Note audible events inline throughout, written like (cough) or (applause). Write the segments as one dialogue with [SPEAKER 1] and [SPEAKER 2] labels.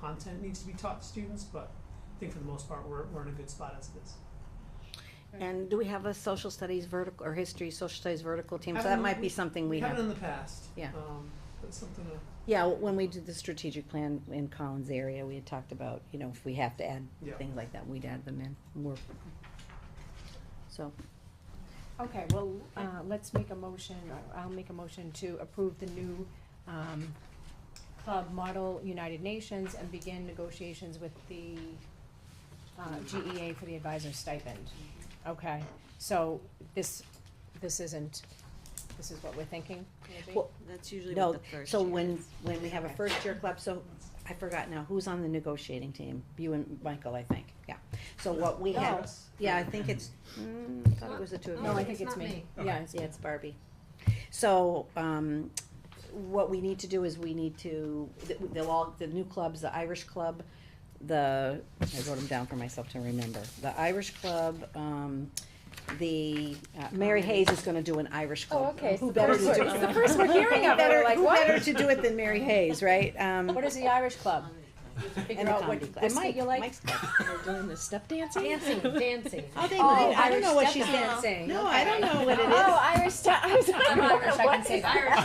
[SPEAKER 1] content needs to be taught to students, but I think for the most part, we're, we're in a good spot as it is.
[SPEAKER 2] And do we have a social studies vertical, or history, social studies vertical team? So that
[SPEAKER 1] Haven't-
[SPEAKER 2] might be something Um, we
[SPEAKER 1] Haven't
[SPEAKER 2] have.
[SPEAKER 1] in the past.
[SPEAKER 2] Yeah.
[SPEAKER 1] Um, but something to,
[SPEAKER 2] Yeah, when we did the strategic plan in Collins area, we had talked about, you know, if we have to add
[SPEAKER 1] Yeah.
[SPEAKER 2] things like that, we'd add them in. We're- So,
[SPEAKER 3] Okay, well, uh, let's make a motion, or I'll make a motion to approve the new, um, club model United Nations and begin negotiations with the, uh, GEA for the advisor stipend. Okay, so this, this isn't, this is what we're thinking, maybe?
[SPEAKER 2] Well,
[SPEAKER 4] That's usually what
[SPEAKER 2] no,
[SPEAKER 4] the first
[SPEAKER 2] so
[SPEAKER 4] year
[SPEAKER 2] when,
[SPEAKER 4] is.
[SPEAKER 2] when we have a first year club, so I forgot now, who's on the negotiating team? You and Michael, I think, yeah. So what we
[SPEAKER 3] No.
[SPEAKER 2] have, yeah, I think it's, mm, I thought it was the two of you.
[SPEAKER 3] Oh, No, I think it's
[SPEAKER 4] not
[SPEAKER 3] me.
[SPEAKER 4] me.
[SPEAKER 3] Yeah, it's
[SPEAKER 2] Yeah, it's Barbie. So, um, what we need to do is we need to, th- they'll all, the new clubs, the Irish Club, the, I wrote them down for myself to remember, the Irish Club, um, the, uh, Mary Hayes is gonna do an Irish
[SPEAKER 3] Oh,
[SPEAKER 2] Club.
[SPEAKER 3] okay, it's
[SPEAKER 2] Who
[SPEAKER 3] the
[SPEAKER 2] better
[SPEAKER 3] first
[SPEAKER 2] to do
[SPEAKER 3] we're- it's the first we're hearing
[SPEAKER 2] Who
[SPEAKER 3] of it, we're
[SPEAKER 2] better-
[SPEAKER 3] like,
[SPEAKER 2] who
[SPEAKER 3] what?
[SPEAKER 2] better to do it than Mary Hayes, right? Um,
[SPEAKER 3] What is the Irish club?
[SPEAKER 2] and
[SPEAKER 3] Figure
[SPEAKER 2] the
[SPEAKER 3] out what,
[SPEAKER 2] comedy club.
[SPEAKER 3] this that you like?
[SPEAKER 2] Mike's club.
[SPEAKER 5] doing the step dancing?
[SPEAKER 4] Dancing, dancing.
[SPEAKER 2] Oh, they
[SPEAKER 3] Oh,
[SPEAKER 2] might, I don't
[SPEAKER 3] Irish
[SPEAKER 2] know what
[SPEAKER 3] step
[SPEAKER 2] she's dancing.
[SPEAKER 3] dancing.
[SPEAKER 2] No, I don't know what it is.
[SPEAKER 3] Oh, Irish
[SPEAKER 2] (laughs)
[SPEAKER 3] step, I'm sorry.
[SPEAKER 4] I'm Irish, I can
[SPEAKER 3] What
[SPEAKER 4] say
[SPEAKER 3] is-
[SPEAKER 4] Irish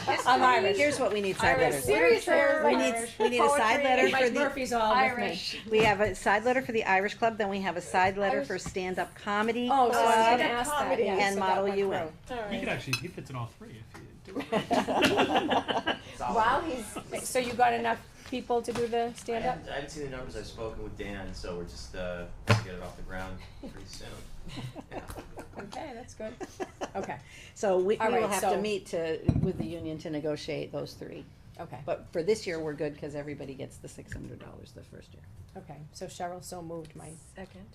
[SPEAKER 4] history.
[SPEAKER 3] I'm Irish.
[SPEAKER 2] Here's what we need side
[SPEAKER 4] Irish
[SPEAKER 2] letters.
[SPEAKER 3] Seriously, I
[SPEAKER 2] We
[SPEAKER 3] was like,
[SPEAKER 2] need, we need a side
[SPEAKER 3] poetry,
[SPEAKER 2] letter for
[SPEAKER 3] Mike
[SPEAKER 2] the,
[SPEAKER 3] Murphy's all with me.
[SPEAKER 4] Irish.
[SPEAKER 2] we have a side letter for the Irish Club, then we have a side letter for stand-up comedy
[SPEAKER 3] Oh, so I was
[SPEAKER 2] club.
[SPEAKER 3] gonna ask that, yeah.
[SPEAKER 2] and
[SPEAKER 3] so that
[SPEAKER 2] model
[SPEAKER 3] went
[SPEAKER 2] UN.
[SPEAKER 3] through.
[SPEAKER 5] Alright.
[SPEAKER 6] He could actually, he fits in all three if you do it.
[SPEAKER 2] (laughs)
[SPEAKER 3] Wow, he's, so you got enough people to do the
[SPEAKER 7] I
[SPEAKER 3] stand-up?
[SPEAKER 7] haven't, I haven't seen the numbers. I've spoken with Dan, so we're just uh, gonna get it off the ground pretty soon.
[SPEAKER 3] Okay, that's good. Okay,
[SPEAKER 2] (laughs) So we, we
[SPEAKER 3] All
[SPEAKER 2] will
[SPEAKER 3] right,
[SPEAKER 2] have to
[SPEAKER 3] so-
[SPEAKER 2] meet to, with the union to negotiate those three.
[SPEAKER 3] okay,
[SPEAKER 2] But for this year, we're good, cause everybody gets the six hundred dollars the first year.
[SPEAKER 3] okay. So Cheryl so moved, Mike.
[SPEAKER 4] Second.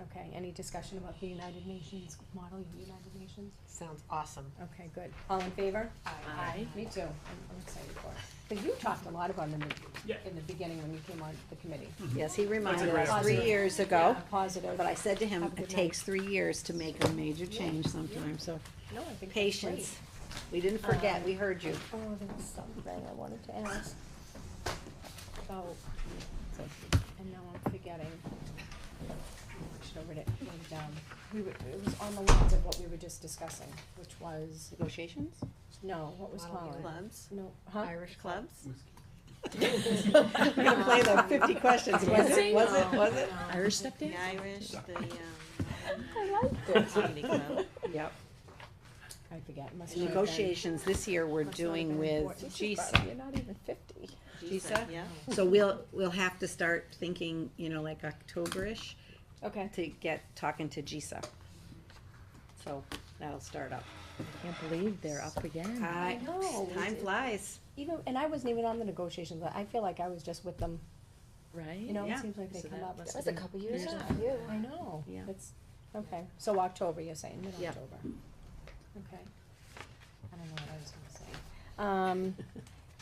[SPEAKER 3] Okay, any discussion about the United Nations, model of the United Nations?
[SPEAKER 4] Sounds awesome.
[SPEAKER 3] Okay, good. All in favor?
[SPEAKER 4] Aye.
[SPEAKER 3] Me too. I'm I'm excited for it. Because you talked a lot about it in
[SPEAKER 6] Yeah.
[SPEAKER 3] the, in the beginning when you came on the committee.
[SPEAKER 2] Yes, he reminded
[SPEAKER 6] great
[SPEAKER 2] us three
[SPEAKER 3] opportunity.
[SPEAKER 2] years ago,
[SPEAKER 3] Yeah, Positive.
[SPEAKER 2] but I said to him,
[SPEAKER 3] Have a
[SPEAKER 2] it
[SPEAKER 3] good night.
[SPEAKER 2] takes three years to make a major change sometimes, so
[SPEAKER 3] No, I think that's great.
[SPEAKER 2] patience. We didn't forget,
[SPEAKER 3] Um,
[SPEAKER 2] we heard you.
[SPEAKER 3] Oh, there was something I wanted to ask. Oh, and now I'm forgetting. I should have written it, wrote it down. um, We were, it was on the lines of what we were just discussing, which was,
[SPEAKER 2] Negotiations?
[SPEAKER 3] no, what was
[SPEAKER 4] Model
[SPEAKER 3] Colin?
[SPEAKER 4] Clubs,
[SPEAKER 3] No, huh?
[SPEAKER 4] Irish clubs.
[SPEAKER 2] We're gonna play the fifty questions, was it, was it,
[SPEAKER 4] Oh.
[SPEAKER 2] was it?
[SPEAKER 5] Um, Irish step
[SPEAKER 4] The
[SPEAKER 5] dancing?
[SPEAKER 4] Irish, the, um.
[SPEAKER 3] I liked it.
[SPEAKER 4] Comedy club.
[SPEAKER 2] Yep.
[SPEAKER 3] I forget, must have been.
[SPEAKER 2] Negotiations this year we're
[SPEAKER 3] must not have
[SPEAKER 2] doing
[SPEAKER 3] been
[SPEAKER 2] with
[SPEAKER 3] important. This is
[SPEAKER 2] GSA.
[SPEAKER 3] probably- You're not even fifty.
[SPEAKER 2] GSA?
[SPEAKER 4] Yeah.
[SPEAKER 2] So we'll, we'll have to start thinking, you know, like Octoberish
[SPEAKER 3] Okay.
[SPEAKER 2] to get, talking to GSA. So that'll start up.
[SPEAKER 5] Can't believe they're up again.
[SPEAKER 2] I,
[SPEAKER 3] know.
[SPEAKER 2] time flies.
[SPEAKER 3] Even, and I wasn't even on the negotiations, but I feel like I was just with them,
[SPEAKER 5] Right?
[SPEAKER 3] you know, it
[SPEAKER 2] Yeah.
[SPEAKER 3] seems like they come up.
[SPEAKER 5] That was a couple years ago.
[SPEAKER 3] I know.
[SPEAKER 2] Yeah.
[SPEAKER 3] It's, okay, so October, you're saying,
[SPEAKER 2] Yeah.
[SPEAKER 3] mid-October. Okay. I don't know what I was gonna say. Um,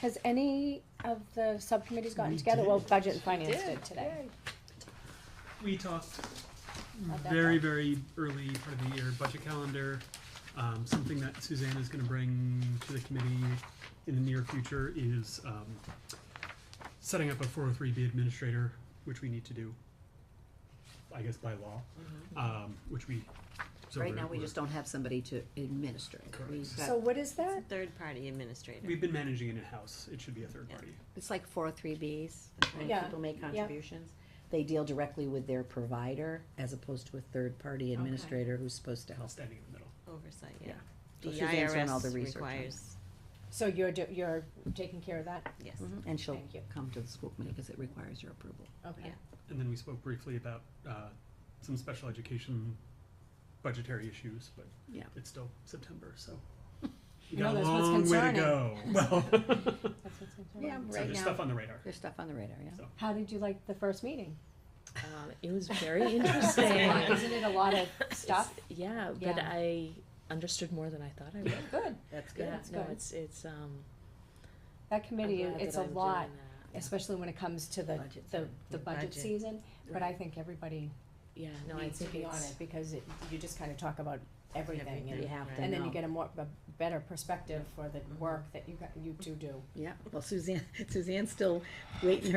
[SPEAKER 3] has any of the subcommittees gotten together? Well, budget and finance did today.
[SPEAKER 6] We talked
[SPEAKER 3] How'd that
[SPEAKER 6] very,
[SPEAKER 3] go?
[SPEAKER 6] very early part of the year, budget calendar, um, something that Suzanne is gonna bring to the committee in the near future is, um, setting up a four oh three B administrator, which we need to do, I guess by law, um, which we.
[SPEAKER 2] Mm-hmm.
[SPEAKER 6] so
[SPEAKER 2] Right
[SPEAKER 6] we're-
[SPEAKER 2] now, we
[SPEAKER 6] we're-
[SPEAKER 2] just don't have somebody to administer it. We've
[SPEAKER 6] Correct.
[SPEAKER 2] got-
[SPEAKER 3] So what is that?
[SPEAKER 4] Third party administrator.
[SPEAKER 6] We've been managing it in-house, it should be a third
[SPEAKER 4] Yeah.
[SPEAKER 6] party.
[SPEAKER 2] It's like four oh three Bs, when
[SPEAKER 3] Yeah,
[SPEAKER 2] people make contributions. They deal directly with their provider as opposed to a third-party administrator who's supposed to help.
[SPEAKER 6] standing in the middle.
[SPEAKER 4] Oversight,
[SPEAKER 2] Yeah.
[SPEAKER 4] yeah.
[SPEAKER 2] So
[SPEAKER 4] The
[SPEAKER 2] Suzanne's doing all the
[SPEAKER 4] IRS
[SPEAKER 2] research on it.
[SPEAKER 4] requires,
[SPEAKER 3] So you're, do- you're taking care of that?
[SPEAKER 4] yes.
[SPEAKER 2] And she'll
[SPEAKER 3] Mm-hmm. Thank you.
[SPEAKER 2] come to the school committee because it requires your approval.
[SPEAKER 3] Okay.
[SPEAKER 4] Yeah.
[SPEAKER 6] And then we spoke briefly about uh, some special education budgetary issues, but
[SPEAKER 2] Yeah.
[SPEAKER 6] it's still September, so.
[SPEAKER 3] (laughs)
[SPEAKER 6] We
[SPEAKER 3] No,
[SPEAKER 6] got a
[SPEAKER 3] that's what's
[SPEAKER 6] long way to
[SPEAKER 3] concerning.
[SPEAKER 6] go. (laughs) Well,
[SPEAKER 3] (laughs) That's what's in
[SPEAKER 2] Yeah,
[SPEAKER 3] there.
[SPEAKER 6] so
[SPEAKER 2] right
[SPEAKER 6] there's
[SPEAKER 2] now,
[SPEAKER 6] stuff on the radar.
[SPEAKER 2] there's stuff on the radar, yeah.
[SPEAKER 3] How did you like the first meeting?
[SPEAKER 5] Um, it was very
[SPEAKER 3] (laughs)
[SPEAKER 4] (laughs)
[SPEAKER 5] interesting.
[SPEAKER 3] Isn't it a
[SPEAKER 5] (laughs)
[SPEAKER 3] lot of stuff?
[SPEAKER 5] Yeah, but
[SPEAKER 3] Yeah.
[SPEAKER 5] I understood more than I thought I would.
[SPEAKER 3] Good.
[SPEAKER 2] That's
[SPEAKER 5] Yeah,
[SPEAKER 3] That's
[SPEAKER 5] no,
[SPEAKER 3] good.
[SPEAKER 5] it's, it's, um.
[SPEAKER 3] That
[SPEAKER 5] I'm
[SPEAKER 3] committee,
[SPEAKER 5] glad
[SPEAKER 3] it's
[SPEAKER 5] that
[SPEAKER 3] a
[SPEAKER 5] I'm doing
[SPEAKER 3] lot,
[SPEAKER 5] that.
[SPEAKER 3] especially when it comes to the,
[SPEAKER 2] Budget
[SPEAKER 3] the,
[SPEAKER 2] time.
[SPEAKER 3] the budget
[SPEAKER 4] Budget.
[SPEAKER 3] season. But I think everybody
[SPEAKER 5] Yeah, no, I
[SPEAKER 3] needs to
[SPEAKER 5] think
[SPEAKER 3] be on it
[SPEAKER 5] it's,
[SPEAKER 3] because it, you just kind of talk about everything,
[SPEAKER 4] Everything.
[SPEAKER 3] and,
[SPEAKER 2] You have to
[SPEAKER 3] and then you
[SPEAKER 2] know.
[SPEAKER 3] get a more, a better perspective for the work that you, got- you two do.
[SPEAKER 2] (laughs) Yeah, well Suzanne, Suzanne's still waiting her